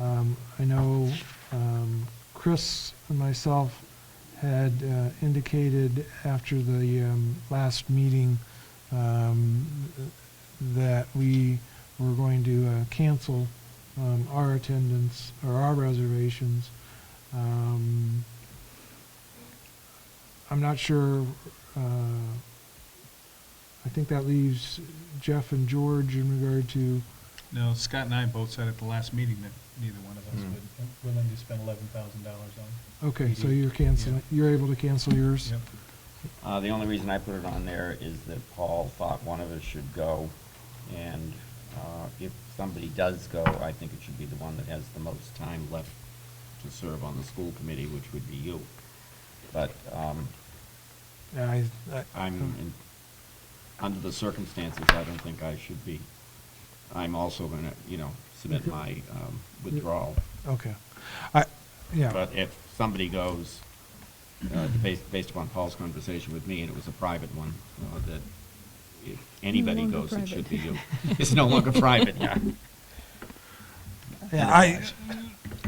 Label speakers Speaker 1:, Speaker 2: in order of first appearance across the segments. Speaker 1: Um, I know um, Chris and myself had uh, indicated after the um, last meeting um, that we were going to uh, cancel um, our attendance or our reservations. Um, I'm not sure, uh, I think that leaves Jeff and George in regard to,
Speaker 2: No, Scott and I both said at the last meeting that neither one of us
Speaker 3: Hmm.
Speaker 2: would, willing to spend eleven thousand dollars on.
Speaker 1: okay, so you're canceling, you're able to cancel yours?
Speaker 2: Yep.
Speaker 3: Uh, the only reason I put it on there is that Paul thought one of us should go, and, uh, if somebody does go, I think it should be the one that has the most time left to serve on the school committee, which would be you. But, um,
Speaker 1: I, I- um,
Speaker 3: I'm,
Speaker 1: Hmm.
Speaker 3: in- under the circumstances, I don't think I should be. I'm also gonna, you know, submit my, um, withdrawal.
Speaker 1: okay. I, yeah,
Speaker 3: But if somebody goes, uh, based, based upon Paul's conversation with me, and it was a private one, uh, that if anybody
Speaker 4: longer
Speaker 3: goes, it should be you.
Speaker 4: private.
Speaker 3: It's no longer private, yeah.
Speaker 1: yeah, I,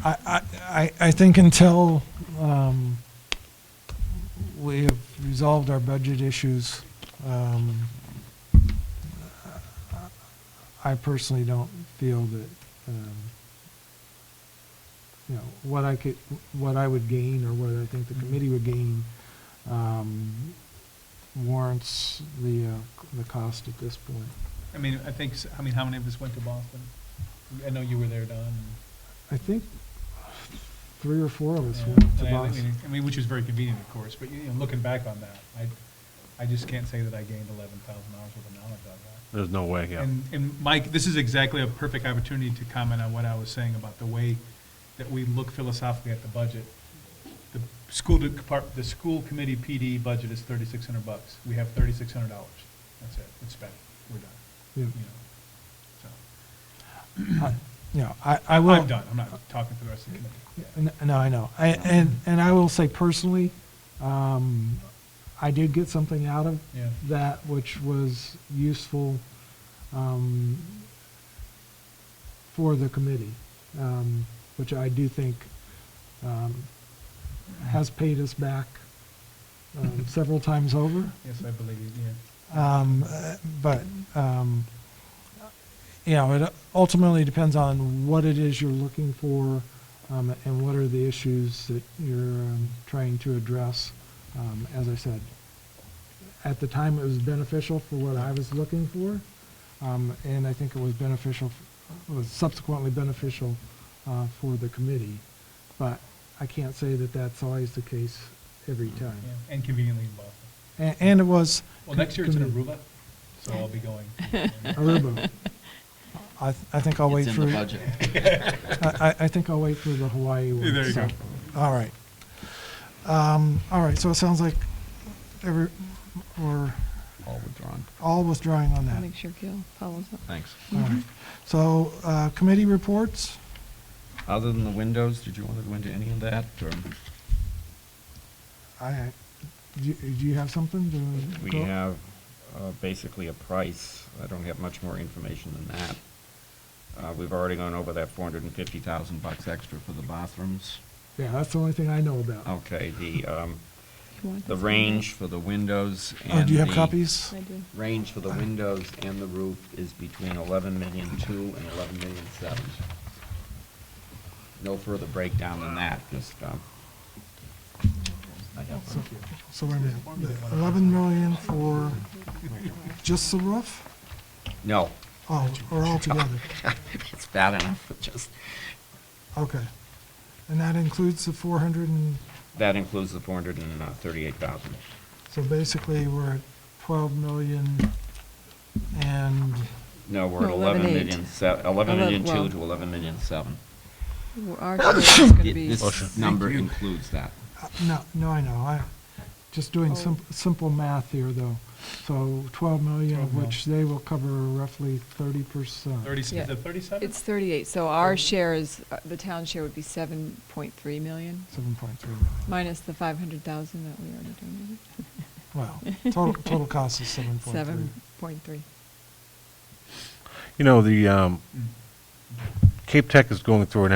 Speaker 1: I, I- I, I think until, um, we have resolved our budget issues, um, I personally don't feel that, um, you know, what I could, what I would gain or what I think
Speaker 2: Mm-hmm.
Speaker 1: the committee would gain, um, warrants the, uh, the cost at this point.
Speaker 2: I mean, I think, s- I mean, how many of us went to Boston? I know you were there, Don.
Speaker 1: I think three or four of us
Speaker 2: Yeah,
Speaker 1: went to
Speaker 2: and I- I
Speaker 1: Boston.
Speaker 2: mean- I mean, which is very convenient, of course, but, you know, looking back on that, I, I just can't say that I gained eleven thousand dollars worth of knowledge on that.
Speaker 5: There's no way, yeah.
Speaker 2: And, and Mike, this is exactly a perfect opportunity to comment on what I was saying about the way that we look philosophically at the budget. The school depart, the school committee PD budget is thirty-six hundred bucks. We have thirty-six hundred dollars. That's it. It's spent. We're done.
Speaker 1: Yeah.
Speaker 2: You know, so.
Speaker 1: You know, I, I will.
Speaker 2: I'm done. I'm not talking for the rest of the committee.
Speaker 1: N- No, I know. I- And, and I will say personally, um, I did get something out of
Speaker 2: Yeah.
Speaker 1: that which was useful um, for the committee, um, which I do think um, has paid us back um, several times over.
Speaker 2: Yes, I believe, you, yeah.
Speaker 1: Um, uh, But, um, you know, it ultimately depends on what it is you're looking for um, and what are the issues that you're um, trying to address. Um, As I said, at the time, it was beneficial for what I was looking for, um, and I think it was beneficial, was subsequently beneficial uh, for the committee. But I can't say that that's always the case every time.
Speaker 2: yeah. And conveniently in Boston.
Speaker 1: A- And it was.
Speaker 2: Well, next year it's in
Speaker 1: committee-
Speaker 2: Aruba, so I'll be going.
Speaker 1: Aruba. I, th- I think I'll wait
Speaker 3: It's
Speaker 1: for,
Speaker 3: in the
Speaker 1: I,
Speaker 3: budget.
Speaker 1: I I think I'll wait for the Hawaii one.
Speaker 2: There you
Speaker 1: so-
Speaker 2: go.
Speaker 1: All right. Um, all right, so it sounds like every, we're
Speaker 3: All withdrawn.
Speaker 1: all withdrawing on
Speaker 4: I'll
Speaker 1: that.
Speaker 4: make sure Gil follows up.
Speaker 3: Thanks.
Speaker 1: All right. So, uh, committee reports,
Speaker 3: Other than the windows, did you want to go into any of that, or?
Speaker 1: I, do you- do you have something to?
Speaker 3: We
Speaker 1: go-
Speaker 3: have uh, basically a price. I don't have much more information than that. Uh, We've already gone over that four hundred and fifty thousand bucks extra for the bathrooms.
Speaker 1: Yeah, that's the only thing I know about.
Speaker 3: Okay, the, um,
Speaker 4: You want
Speaker 3: the
Speaker 4: this?
Speaker 3: range for the windows
Speaker 1: Oh,
Speaker 3: and
Speaker 1: do you have
Speaker 3: the-
Speaker 1: copies?
Speaker 4: I do.
Speaker 3: range for the windows and the roof is between eleven million two and eleven million seven. No further breakdown than that, just, um, I have,
Speaker 1: So- So wait a minute, eleven million for just the roof?
Speaker 3: no,
Speaker 1: Oh, or all together?
Speaker 3: it's bad enough, but just,
Speaker 1: Okay. And that includes the 400 and,
Speaker 3: that includes the four hundred and uh, thirty-eight thousand.
Speaker 1: so basically we're at 12 million and,
Speaker 3: No, we're at
Speaker 4: No,
Speaker 3: eleven
Speaker 4: 11,800,000.
Speaker 3: million se- eleven
Speaker 4: Eleven-
Speaker 3: million two
Speaker 4: well-
Speaker 3: to eleven million seven.
Speaker 4: Well, Our share is going to
Speaker 3: It-
Speaker 4: be,
Speaker 3: This Oh, number includes that.
Speaker 1: uh, no, no, I know, I, just
Speaker 2: Oh.
Speaker 1: doing sim- simple math here though. So 12 million, of
Speaker 2: 12 mil.
Speaker 1: which they will cover roughly 30%.
Speaker 2: Thirty, is
Speaker 4: Yeah.
Speaker 2: it thirty-seven?
Speaker 4: it's 38, so our share is, uh, the town share would be 7.3 million,
Speaker 1: 7.3 million.
Speaker 4: minus the 500,000 that we already donated.
Speaker 1: Well, total, total cost is 7.3.
Speaker 4: 7.3.
Speaker 2: Hmm.
Speaker 5: You know, the, um, Cape Tech is going through an